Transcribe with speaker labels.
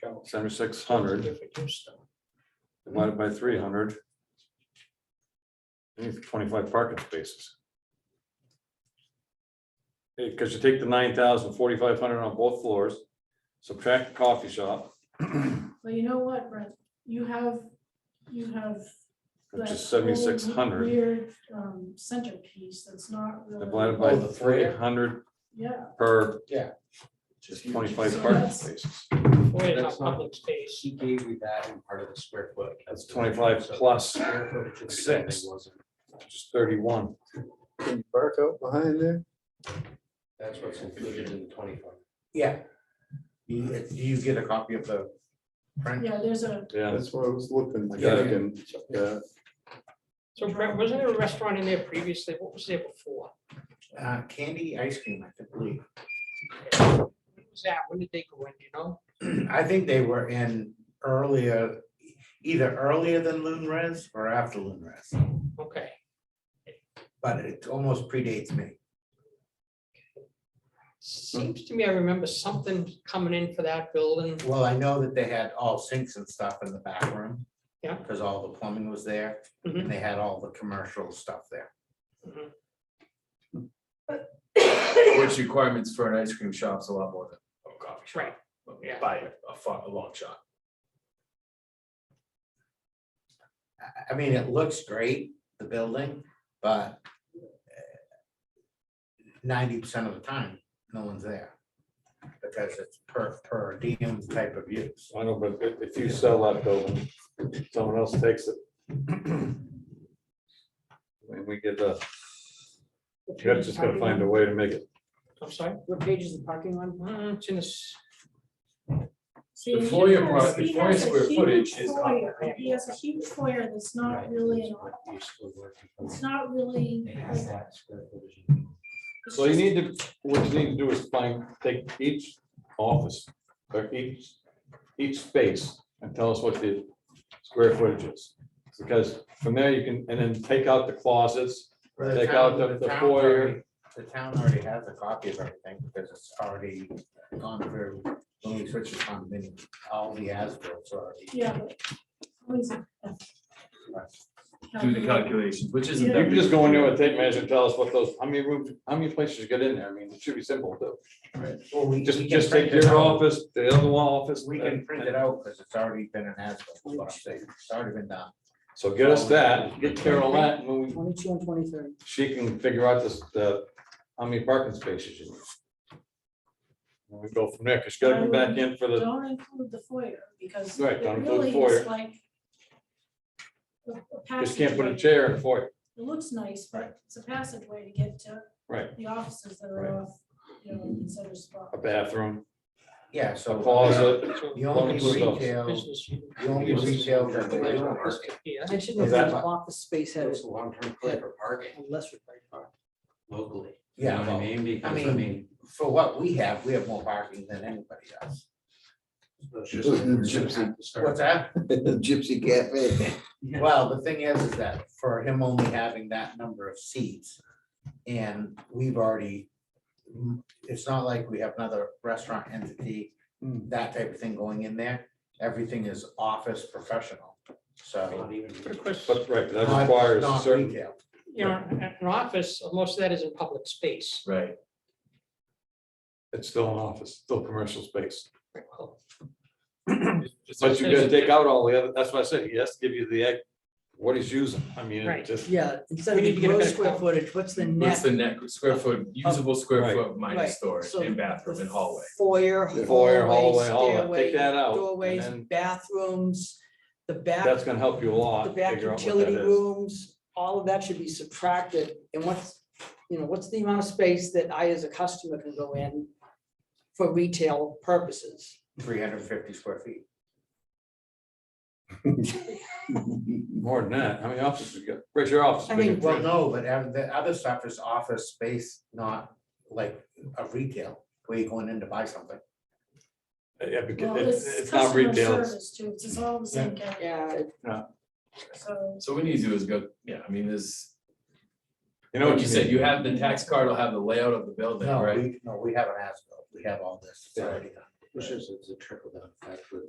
Speaker 1: count.
Speaker 2: seventy-six hundred divided by three hundred. I need Twenty-five parking spaces. Because you take the nine thousand forty-five hundred on both floors, subtract the coffee shop,
Speaker 3: Well, you know what, Brent, you have, you have.
Speaker 2: which
Speaker 3: that
Speaker 2: is seventy-six
Speaker 3: whole
Speaker 2: hundred,
Speaker 3: Weird um centerpiece that's not really.
Speaker 2: divided
Speaker 1: Oh,
Speaker 2: by
Speaker 1: the
Speaker 2: three
Speaker 1: foyer?
Speaker 2: hundred
Speaker 3: Yeah,
Speaker 2: per
Speaker 1: Just
Speaker 2: twenty-five
Speaker 3: So
Speaker 2: parking
Speaker 3: that's-
Speaker 2: spaces.
Speaker 4: Boy,
Speaker 1: That's
Speaker 4: how
Speaker 1: not-
Speaker 4: public space.
Speaker 5: She gave me that in part of the square foot.
Speaker 2: That's twenty-five plus, six. which is thirty-one.
Speaker 6: Can you park out behind there?
Speaker 5: That's what's included in the twenty-five.
Speaker 1: Yeah. You, you get a copy of the.
Speaker 3: yeah, there's a,
Speaker 2: Yeah,
Speaker 6: That's what I was looking.
Speaker 2: I got it.
Speaker 6: thinking, uh,
Speaker 4: So Brett, wasn't there a restaurant in there previously? What was there before?
Speaker 1: Uh, candy ice cream, I think, believe.
Speaker 4: When was that? When did they go in, do you know?
Speaker 1: I think they were in earlier, either earlier than Loon Res or after Loon Res,
Speaker 4: Okay.
Speaker 1: but it almost predates me.
Speaker 4: Seems to me I remember something coming in for that building.
Speaker 1: Well, I know that they had all sinks and stuff in the back room.
Speaker 4: Yeah.
Speaker 1: Because all the plumbing was there,
Speaker 4: Mhm.
Speaker 1: and they had all the commercial stuff there.
Speaker 4: Mhm.
Speaker 5: Which requirements for an ice cream shop is a lot more than a coffee shop.
Speaker 4: Right, yeah.
Speaker 5: By a far, a long shot.
Speaker 1: I, I mean, it looks great, the building, but uh, ninety percent of the time, no one's there. Because it's per, per diem type of use.
Speaker 2: I know, but if- if you sell that building, someone else takes it. And we get the, you're just gonna find a way to make it
Speaker 4: I'm sorry?
Speaker 7: What page is the parking on?
Speaker 4: Mm, It's in this,
Speaker 3: see.
Speaker 5: The
Speaker 3: he
Speaker 5: foyer
Speaker 3: has-
Speaker 5: product- the
Speaker 3: he
Speaker 5: foyer
Speaker 3: has a
Speaker 5: square
Speaker 3: huge
Speaker 5: footage is up.
Speaker 3: foyer. He has a huge foyer that's not really, an it's not really.
Speaker 5: It
Speaker 3: like,
Speaker 5: has that square footage.
Speaker 3: it's
Speaker 2: So you
Speaker 3: just-
Speaker 2: need to, what you need to do is find, take each office, or each, each space, and tell us what the square footage is. Because from there you can, and then take out the closets,
Speaker 1: Where the
Speaker 2: Take
Speaker 1: town-
Speaker 2: out the- the
Speaker 1: town's
Speaker 2: foyer.
Speaker 1: already- The town already has a copy of everything because it's already gone through, when we switched to condominium, all the as-bills are already.
Speaker 3: Yeah. but always a-
Speaker 5: Do the calculations, which isn't.
Speaker 2: you
Speaker 5: that
Speaker 2: can just
Speaker 5: big of
Speaker 2: go
Speaker 5: a
Speaker 2: in there
Speaker 5: deal.
Speaker 2: and take measure, tell us what those, how many rooms, how many places you get in there, I mean, it should be simple, though.
Speaker 1: Well, we-
Speaker 2: Just,
Speaker 1: we can
Speaker 2: just take
Speaker 1: print it
Speaker 2: your
Speaker 1: out.
Speaker 2: office, the other one office.
Speaker 1: We can print it out because it's already been an as-built, is what I'm saying. it's already been done.
Speaker 2: So get us that, get Carol that, and we-
Speaker 7: Twenty-two and twenty-three.
Speaker 2: she can figure out this, the, how many parking spaces you need. And we go from there, because you gotta be back in for the
Speaker 3: Don't include the foyer because.
Speaker 2: Right,
Speaker 3: it
Speaker 2: don't include the
Speaker 3: really
Speaker 2: foyer.
Speaker 3: is Like. a- a
Speaker 2: Just can't put a
Speaker 3: passageway.
Speaker 2: chair in for it.
Speaker 3: It looks nice, but it's a passageway to get to.
Speaker 2: Right.
Speaker 3: The offices that are off, you know, consider spot.
Speaker 2: A bathroom,
Speaker 1: Yeah,
Speaker 2: a
Speaker 1: so.
Speaker 2: closet.
Speaker 4: so
Speaker 1: The only
Speaker 2: Business.
Speaker 1: retail, the
Speaker 4: business. unit.
Speaker 1: only retail that they don't
Speaker 4: This could be it.
Speaker 7: I should know
Speaker 2: Is
Speaker 7: if
Speaker 2: that-
Speaker 7: the office space had
Speaker 5: It's a long-term play for parking
Speaker 7: less required parking.
Speaker 5: locally. You know
Speaker 1: yeah,
Speaker 5: what I
Speaker 1: well,
Speaker 5: mean? Because I
Speaker 1: mean-
Speaker 5: mean,
Speaker 1: for what we have, we have more parking than anybody else.
Speaker 5: it's
Speaker 6: Just
Speaker 5: just-
Speaker 6: the
Speaker 5: we're gonna
Speaker 6: gypsy-
Speaker 5: have to start
Speaker 1: What's that?
Speaker 6: Gypsy Cafe.
Speaker 1: Well, the thing is, is that for him only having that number of seats, and we've already, it's not like we have another restaurant entity,
Speaker 2: Hmm.
Speaker 1: that type of thing going in there. Everything is office professional, so.
Speaker 5: not even-
Speaker 4: But of course,
Speaker 2: But right, that
Speaker 1: not-
Speaker 2: requires a
Speaker 1: not
Speaker 2: certain,
Speaker 1: retail.
Speaker 4: you know, an office, most of that is in public space.
Speaker 5: Right.
Speaker 2: it's still an office, still commercial space.
Speaker 4: Well,
Speaker 2: But you gotta take out all the other, that's why I said, he has to give you the, ex- what he's using. I mean, it
Speaker 4: Right.
Speaker 2: just,
Speaker 7: Yeah, instead
Speaker 4: We
Speaker 7: of
Speaker 4: need
Speaker 7: the
Speaker 4: to get a
Speaker 7: gross
Speaker 4: better
Speaker 7: square
Speaker 4: count.
Speaker 7: footage, what's the
Speaker 8: What's
Speaker 7: net?
Speaker 8: the neck, square foot, usable
Speaker 2: Right.
Speaker 8: square foot minus
Speaker 7: Right,
Speaker 8: storage
Speaker 7: so
Speaker 8: and bathroom and hallway?
Speaker 7: Foyer,
Speaker 2: Foyer, hallway,
Speaker 7: hallway,
Speaker 2: all that.
Speaker 7: stairway,
Speaker 2: Take that out, and
Speaker 7: Doorways,
Speaker 2: then-
Speaker 7: bathrooms, the back.
Speaker 2: that's gonna help you a
Speaker 7: the
Speaker 2: lot.
Speaker 7: back
Speaker 2: figure out what that
Speaker 7: utility
Speaker 2: is.
Speaker 7: rooms, all of that should be subtracted, and what's, you know, what's the amount of space that I as a customer can go in for retail purposes?
Speaker 1: Three hundred and fifty square feet.
Speaker 2: More than that, how many offices you got? Where's your office?
Speaker 7: I mean,
Speaker 1: Well, no, but ev- the other stuff is office space, not like a retail, where you're going in to buy something.
Speaker 2: Yeah, because
Speaker 3: Well,
Speaker 2: it's,
Speaker 3: it's
Speaker 2: it's not
Speaker 3: customer
Speaker 2: retail, it's-
Speaker 3: service too. It's just all the same category,
Speaker 7: Yeah, it-
Speaker 3: so.
Speaker 8: So what we need to do is go, yeah, I mean, this,
Speaker 2: you
Speaker 8: you
Speaker 2: know
Speaker 8: know,
Speaker 2: what
Speaker 8: you said, you have the tax card, will have the layout of the building,
Speaker 1: No,
Speaker 8: right?
Speaker 1: we, no, we haven't asked, we have all this, it's
Speaker 2: Yeah.
Speaker 1: already done.
Speaker 5: Which is, it's a trickle down effect with